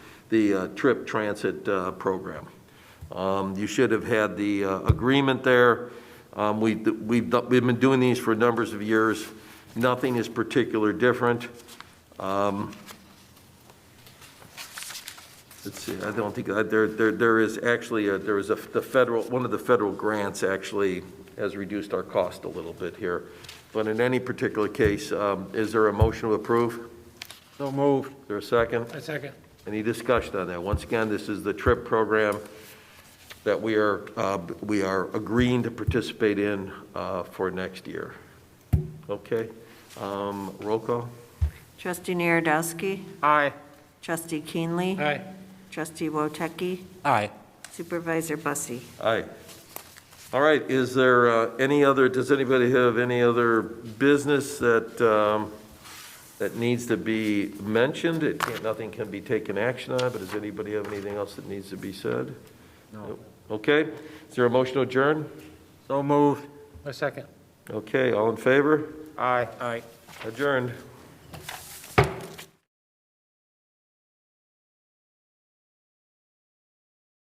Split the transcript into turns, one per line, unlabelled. the uh, TRIP Transit uh, Program. Um, You should have had the uh, agreement there. Um, we- We've do- we've been doing these for numbers of years. Nothing is particular different. Um, Let's see, I don't think, uh, there there there is actually, a- there is a the federal, one of the federal grants actually has reduced our cost a little bit here. But in any particular case, um, is there a motion to approve?
So moved.
Is there a second?
A second.
Any discussion on that? Once again, this is the TRIP program that we are, uh, we are agreeing to participate in uh, for next year. Okay? Um, Roll call?
Trustee Narodowski,
Aye.
Trustee Keenley,
Aye.
Trustee Woteki,
Aye.
Supervisor Bussie.
Aye. All right, is there uh, any other, does anybody have any other business that, um, that needs to be mentioned? It can't, nothing can be taken action on, but does anybody have anything else that needs to be said? No. Okay, is there a motion to adjourn?
So moved. A second.
Okay, all in favor?
Aye. Aye.
Adjourned.